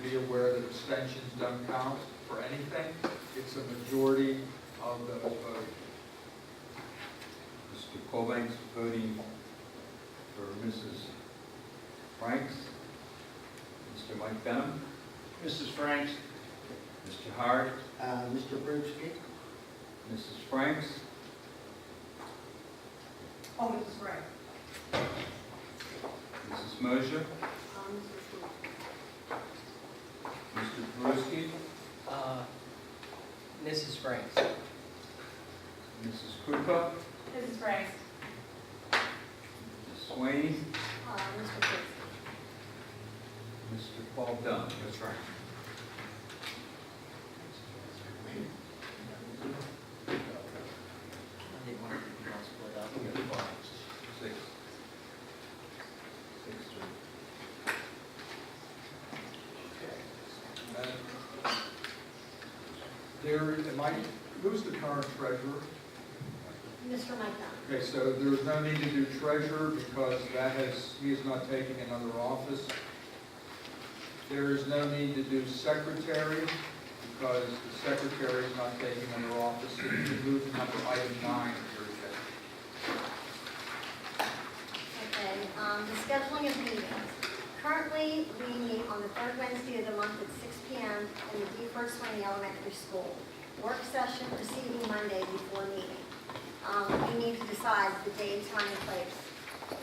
be aware that abstentions don't count for anything. It's a majority of the vote. Mr. Cobain's voting for Mrs. Franks. Mr. Mike Benham, Mrs. Franks? Mr. Howard, Uh, Mr. Brewski? Mrs. Franks, Oh, Mrs. Gray. Mrs. Mosher, Um, Mrs. Wu. Mr. Perusky, Uh, Mrs. Franks. Mrs. Krupa, Mrs. Gray. Mrs. Swain, Uh, Mr. Brewski. Mr. Paul Dunn. That's right. I didn't want to be all split up. Six. Six, three. There, am I, who's the current treasurer? Mr. Mike Dunn. Okay, so there's no need to do treasurer because that has, he is not taking another office. There is no need to do secretary because the secretary is not taking another office. So you can move to number item nine of your agenda. Okay, um, the scheduling of meetings. Currently, we meet on the third Wednesday of the month at six P M. in the Beaufort Swain Elementary School. Work session preceding Monday before meeting. Um, we need to decide the day, time, and place.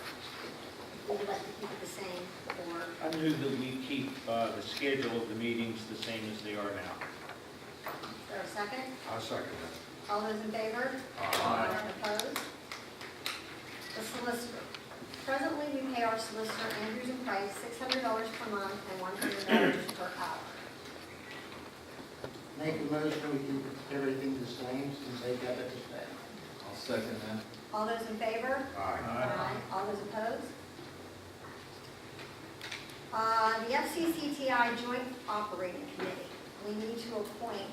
Would you like to keep it the same or? I move that we keep uh, the schedule of the meetings the same as they are now. Is there a second? I'll second All those in favor? Aye. Opposed? The solicitor. Presently, we pay our solicitor Andrews and Price $600 per month and $100 per hour. Make a motion, we keep everything the same since they got it the same. I'll second that. All those in favor? Aye. All those opposed? Uh, The FCCTI Joint Operating Committee, we need to appoint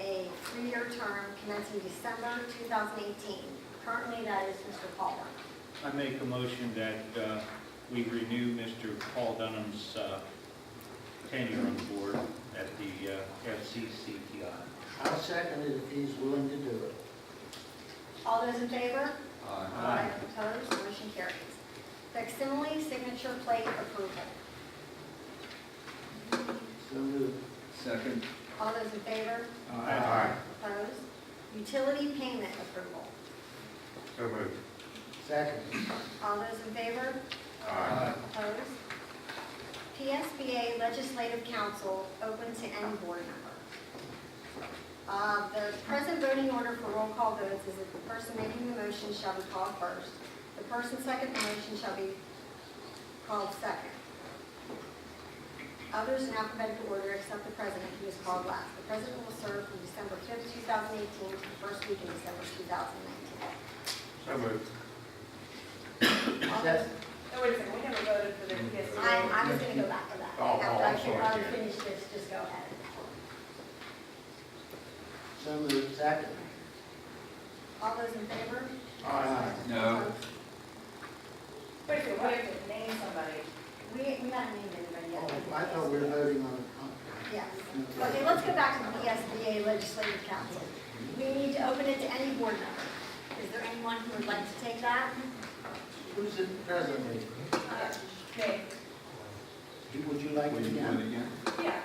a three-year term commencing December 2018. Currently, that is Mr. Palmer. I make a motion that uh, we renew Mr. Paul Dunham's uh, tenure on the board at the uh, FCCTI. I'll second it if he's willing to do it. All those in favor? Aye. Aye. Opposed, motion carries. Facsimile signature plate approval. So moved. Second. All those in favor? Aye. Opposed? Utility payment approval. So moved. Second. All those in favor? Aye. Opposed? PSBA Legislative Council, open to any board member. Uh, The present voting order for roll call votes is that the person making the motion shall be called first. The person second the motion shall be called second. Others in alphabetical order except the president, who is called last. The president will serve from December 5th, 2018 to the first week in December 2019. So moved. All those- Oh, wait a second, we haven't voted for the PSC. I, I was gonna go back to that. Oh, oh, I'm After I can- sorry, Jan. I'll finish this, just go ahead. So moved. Second. All those in favor? Um, Aye. No. Opposed? Wait a second, we have to name somebody. We, we haven't named anybody Oh, yet. I thought we were voting on a Yes. contract. Okay, let's go back to the E SBA Legislative Council. We need to open it to any board member. Is there anyone who would like to take that? Who's it presently? Name. Would you like Will to you do it again? again? Yeah.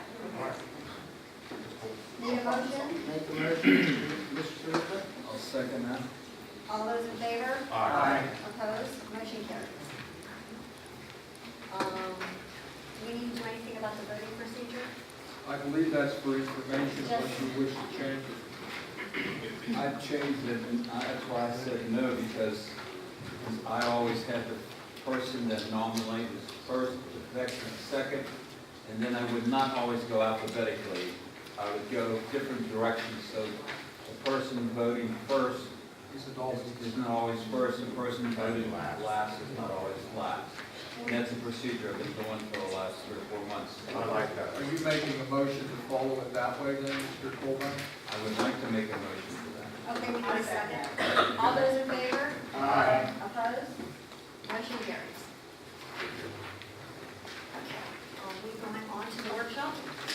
Need a motion? Make a motion, Mr. Rupa? I'll second that. All those in favor? Aye. Opposed? Motion carries. Um, do we need to do anything about the voting procedure? I believe that's for information, but you wish to change it. I've changed it, and I- that's why I said no, because I always had the person that nominated first, the veteran second, and then I would not always go alphabetically. I would go different directions, so the person voting first He's an is- is not always first, and the person voting last is not always last. And that's a procedure I've been doing for the last three or four months. Are you making a motion to follow it that way then, Mr. Colvin? I would like to make a motion for that. Okay, we need a second. All those in favor? Aye. Opposed? Motion carries. Okay, are we going on to the workshop.